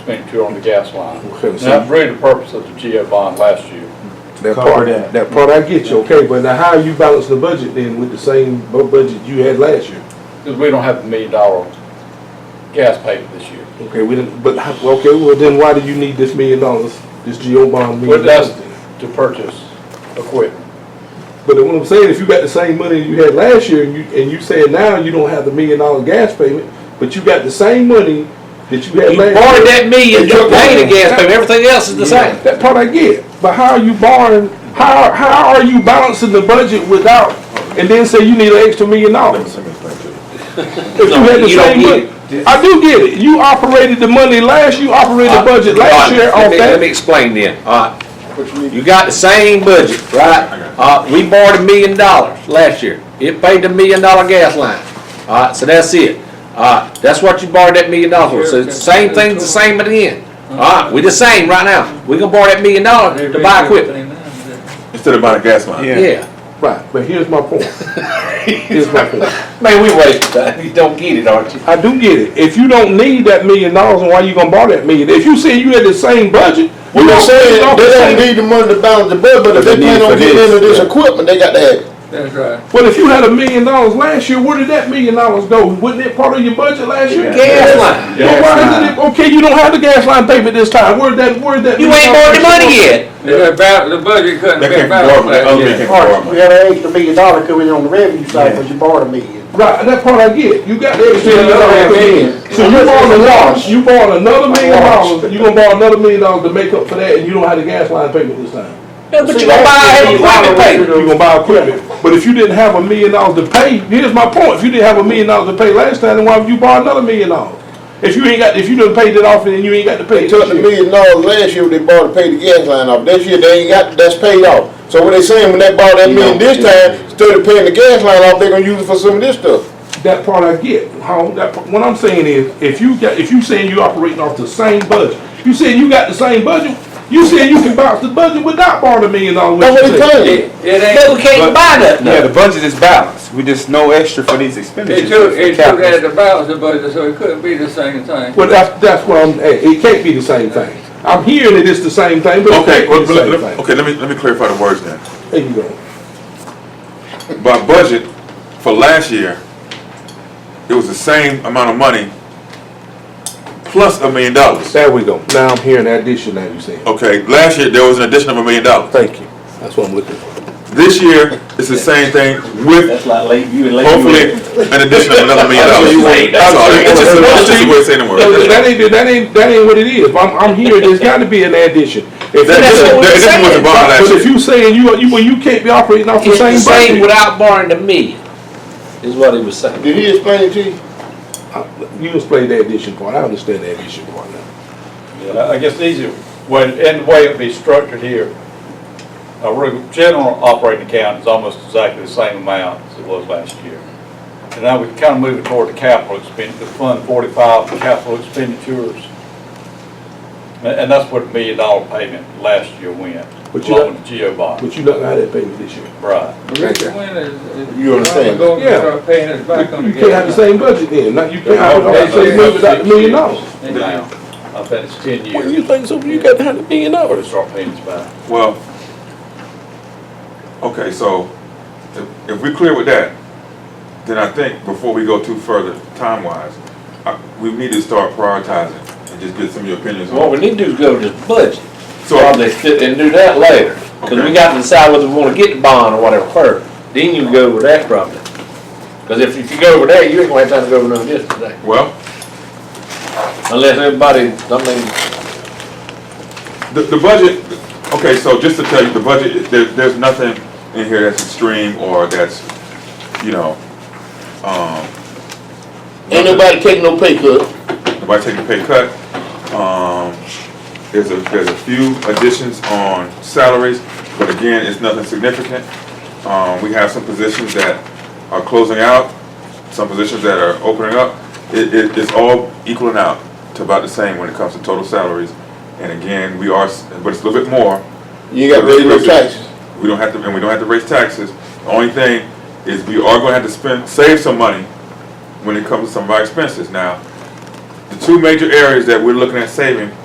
between two on the gas line. Okay, And so- that's really the purpose of the GO bond last year. That Cover part, that. that part I get you, okay, but now how you balance the budget then with the same bu- budget you had last year? Because we don't have the million dollar gas payment this year. Okay, we didn't, but, how- okay, well then why do you need this million dollars, this GO bond But million that's dollars? then? to purchase equipment. But what I'm saying, if you got the same money you had last year and you, and you saying now you don't have the million dollar gas payment, but you got the same money that you had You last year. borrowed that million, you paid the gas payment, everything else is the same. That part I get, but how are you borrowing, how, how are you balancing the budget without, and then say you need an extra million dollars? If you had the You don't same get money, I do get it, you operated the money last, you operated the budget last Alright, year Uh, let on me- Let me that. explain then, alright, Which you need you got the same budget, right? Uh, we borrowed a million dollars last year, it paid the million dollar gas line, alright, so that's it. Alright, that's what you borrowed that million dollars for, so it's the same thing's the same at the end. Alright, we the same right now, we gonna borrow that million dollars to buy equipment, Instead of buying a gas line. yeah. Right, but here's my point, here's my point. Man, we wasted time, you don't get it, aren't you? I do get it. If you don't need that million dollars, then why you gonna borrow that million? If you say you had the same budget, We you were don't saying say they don't need the money to balance the budget, but if they They need plan on for getting this, into this yeah. equipment, they got to have it. That's right. But if you had a million dollars last year, where did that million dollars go? Wasn't it part of your budget last year? Gas line, Well, why is it, okay, you don't have the gas line payment this time. Where did that, where did that? you million ain't borrowed the dollars go? money yet. The budget couldn't They can't borrow, the other man can't borrow We money. had an extra million dollar coming on the revenue side, but you borrowed a million. Right, that part I get. You got the extra million another dollars. million. So you borrowed a loss, you borrowed another million dollars, you gonna borrow another million dollars to make up for that, and you don't have the gas line payment this time. Yeah, but you gonna buy every You're equipment gonna payment. buy equipment, but if you didn't have a million dollars to pay, here's my point, if you didn't have a million dollars to pay last time, then why would you borrow another million dollars? If you ain't got, if you done paid it off and then you ain't got to pay They it this took the year. million dollars last year, they borrowed to pay the gas line off. This year, they ain't got, that's paid off. So what they saying, when they borrow that million this time, instead of paying the gas line off, they gonna use it for some of this stuff. That part I get, how, that, part- what I'm saying is, if you got, if you saying you operating off the same budget, you saying you got the same budget, you saying you can bounce the budget without borrowing a million dollars. That's what they claiming. But we can't buy nothing. Yeah, the budget is balanced. We just know extra for these expenditures. Capital. to balance the budget, so it couldn't be the same thing. Well, that's, that's what I'm, eh, it can't be the same thing. I'm hearing it is the same thing, but it Okay, can't well, be the let- same let- thing. okay, let me, let me clarify the words now. There you go. By budget, for last year, it was the same amount of money plus a million dollars. There we go. Now I'm hearing that addition that you said. Okay, last year, there was an addition of a million dollars. Thank you. That's what I'm looking for. This year, it's the same thing with like late, you and hopefully an addition of another million dollars. That's all, it's just, a- it's just a way of saying the word. That's That all. ain't, that ain't, that ain't what it is. I'm, I'm hearing there's gotta be an addition. If That you- addition, that addition was the bottom But last year. if you saying you, you, well, you can't be operating off the It's the same same budget. without borrowing the million, is what he was saying. Did he explain it to you? You explained the addition part. I understand the addition part now. I guess the easier, when, and the way it'd be structured here, a re- general operating account is almost exactly the same amount as it was last year. And now we can kind of move it toward the capital expenditure, Fund 45, for capital expenditures. And and that's where the million dollar payment last year went, But you along with the GO bond. But you don't know how that payment this year. Right. You understand? Yeah. You can't have the same budget then. Not, you can't operate off the same budget without the million dollars. Now, I bet it's 10 years. think so? You got to have the million We'll start paying this back. Well, okay, so if- if we're clear with that, then I think before we go too further, time-wise, I- we need to start prioritizing and just get some of your opinions What we on. need to do is go to this budget, So, probably sit and do that later, because we Okay. got to decide whether we want to get the bond or whatever first. Then you can go over that probably. Because if, if you go over there, you ain't gonna have time to go over none of this today, well, unless everybody, I mean, the, the budget, okay, so just to tell you, the budget, there, there's nothing in here that's extreme or that's, you know, um, Ain't nobody taking no pay cut. Nobody taking a pay cut. Um, there's a, there's a few additions on salaries, but again, it's nothing significant. Um, we have some positions that are closing out, some positions that are opening up. It, it, it's all equaling out to about the same when it comes to total salaries. And again, we are, s- but it's a little bit more. You ain't got to pay no taxes. We don't have to, and we don't have to raise taxes. The only thing is we are gonna have to spend, save some money when it comes to some of our expenses. Now, the two major areas that we're looking at saving